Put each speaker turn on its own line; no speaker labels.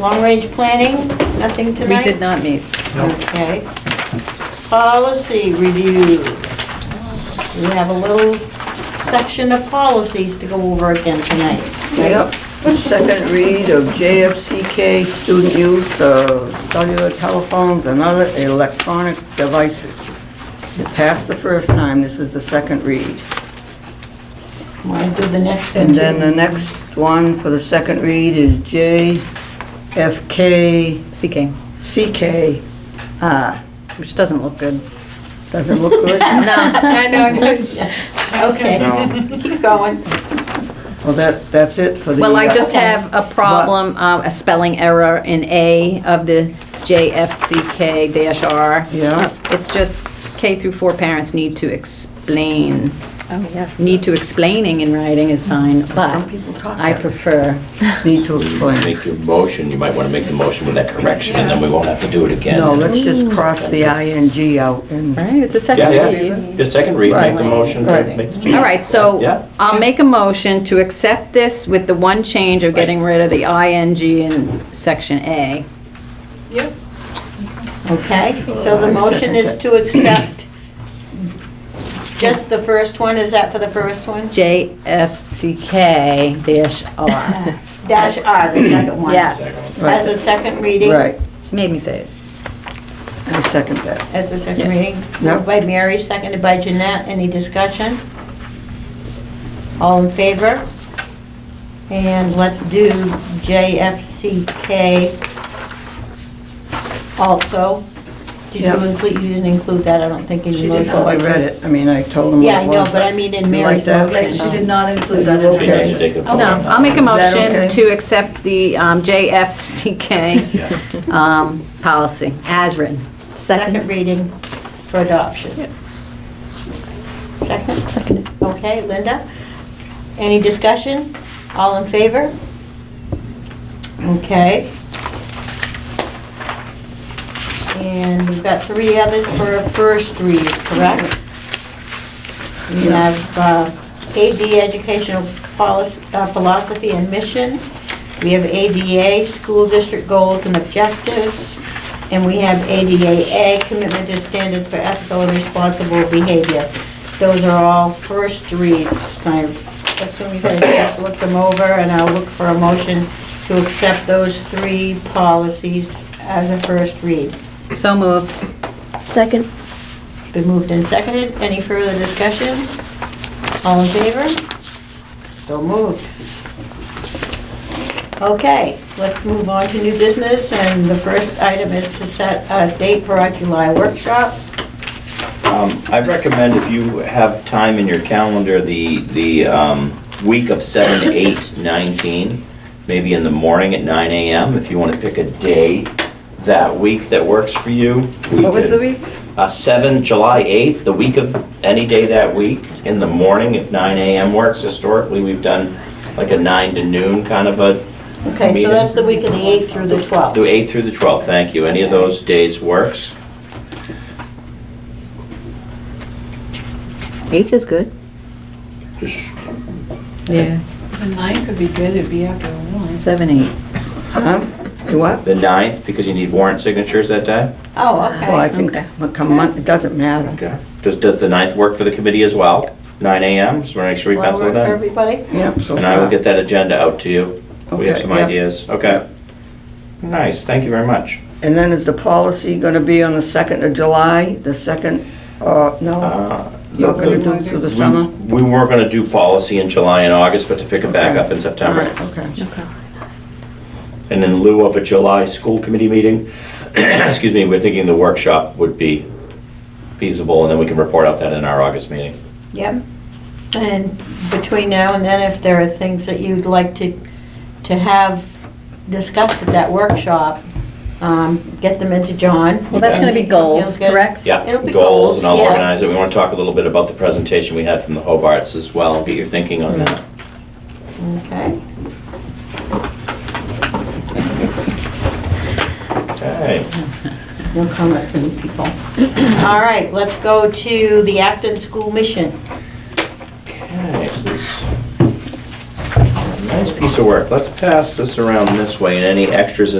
Long-range planning, nothing
We
tonight?
did not meet.
Okay. Policy reviews. We have a little section of policies to go over again tonight. right?
Yep, second read of JFCK student use of cellular telephones and other electronic devices. It passed the first time, this is the second read.
Want to do the next one?
And then the next one for the second read is JFK
CK,
CK. Ah,
which doesn't look good.
doesn't look good.
No, I know.
Okay, keep going.
Well, that, that's it for the.
Well, I
uh,
just have a problem, um, a spelling error in A of the JFCK dash R.
Yeah.
It's just K through four parents need to explain.
Oh, yes.
Need to explaining in writing is fine, but
people talk
I
that.
prefer,
Need to explain.
Make your motion, you might want to make the motion with that correction, and then we won't have to do it again.
No, let's just cross the ing out and.
right, it's a
Yeah,
second
yeah,
read.
the second read, make the motion,
Right.
make the
All
change.
right, so
Yeah.
I'll make a motion to accept this with the one change of getting rid of the ing in section A.
Okay, so the motion is to accept just the first one, is that for the first one?
JFCK dash R.
Dash R, the second one.
Yes,
As a second reading?
Right,
made me say it.
I second that.
As a second reading?
Yeah.
Moved by Mary, seconded by Jeanette. Any discussion? All in favor? And let's do JFCK also. Did you
Yeah.
include, you didn't include that, I don't think, in your motion.
Well, Oh, I read it, I mean, I told them what
Yeah,
it
I know,
was.
but I mean in
You
Mary's
like that?
motion.
She did not include that
Okay.
in
We need to take a vote
No,
on that.
I'll make a
that okay?
motion to accept the um,
Yeah.
JFCK um, policy as written.
Second reading for adoption. Second? Second. Okay, Linda? Any discussion? All in favor? Okay. And we've got three others for a first read, correct? We have uh, AD Educational policy, uh, Philosophy and Mission. We have ADA, School District Goals and Objectives. And we have ADAA, Commitment to Standards for Ethical and Responsible Behavior. Those are all first reads, so I assume you've had a chance to look them over, and I'll look for a motion to accept those three policies as a first read.
So moved.
Second?
Been moved and seconded. Any further discussion? All in favor? So moved. Okay, let's move on to new business, and the first item is to set a date for our July workshop.
Um, I recommend if you have time in your calendar, the, the um, week of 7, 8, 19, maybe in the morning at nine AM, if you want to pick a day that week that works for you. we
What was
could-
the week?
Uh, 7, July 8th, the week of, any day that week, in the morning, if nine AM works. Historically, we've done like a 9 to noon kind of a
Okay, so
Meeting.
that's the week of the 8th through the
Do
12th.
8 through the 12th, thank you. Any of those days works?
Eighth is good.
Just
Yeah,
The ninth would be good, it'd be after one.
seven, eight.
Huh? You What?
The 9th, because you need warrant signatures that day?
Oh,
Well, I
okay.
can come on, it doesn't matter.
Okay. Does, does the 9th work for the committee as well? 9 AM, just want to make sure we
Well,
pencil
work for
that in.
everybody?
Yep, so far.
And I will get that agenda out to you. We have
Okay,
some
yep.
ideas, okay. Nice, thank you very much.
And then is the policy gonna be on the second of July, the second, uh, no?
Uh,
You're
the-
gonna do it through the
we-
summer?
We were going to do policy in July and August, but to pick it back
Okay.
up in September.
All right, Okay.
And in lieu of a July school committee meeting, excuse me, we're thinking the workshop would be feasible, and then we can report out that in our August meeting.
Yep. And between now and then, if there are things that you'd like to, to have discussed at that workshop, um, get them into John.
Well, that's gonna be goals,
He'll get-
correct?
Yeah,
It'll be
goals,
goals,
and I'll
yeah.
organize it. We want to talk a little bit about the presentation we had from the Hobarts as well, and get your thinking on that.
Okay.
Okay.
No comment from the people. All right, let's go to the Acton School Mission.
Okay, so this- Nice piece of work. Let's pass this around this way, and any extras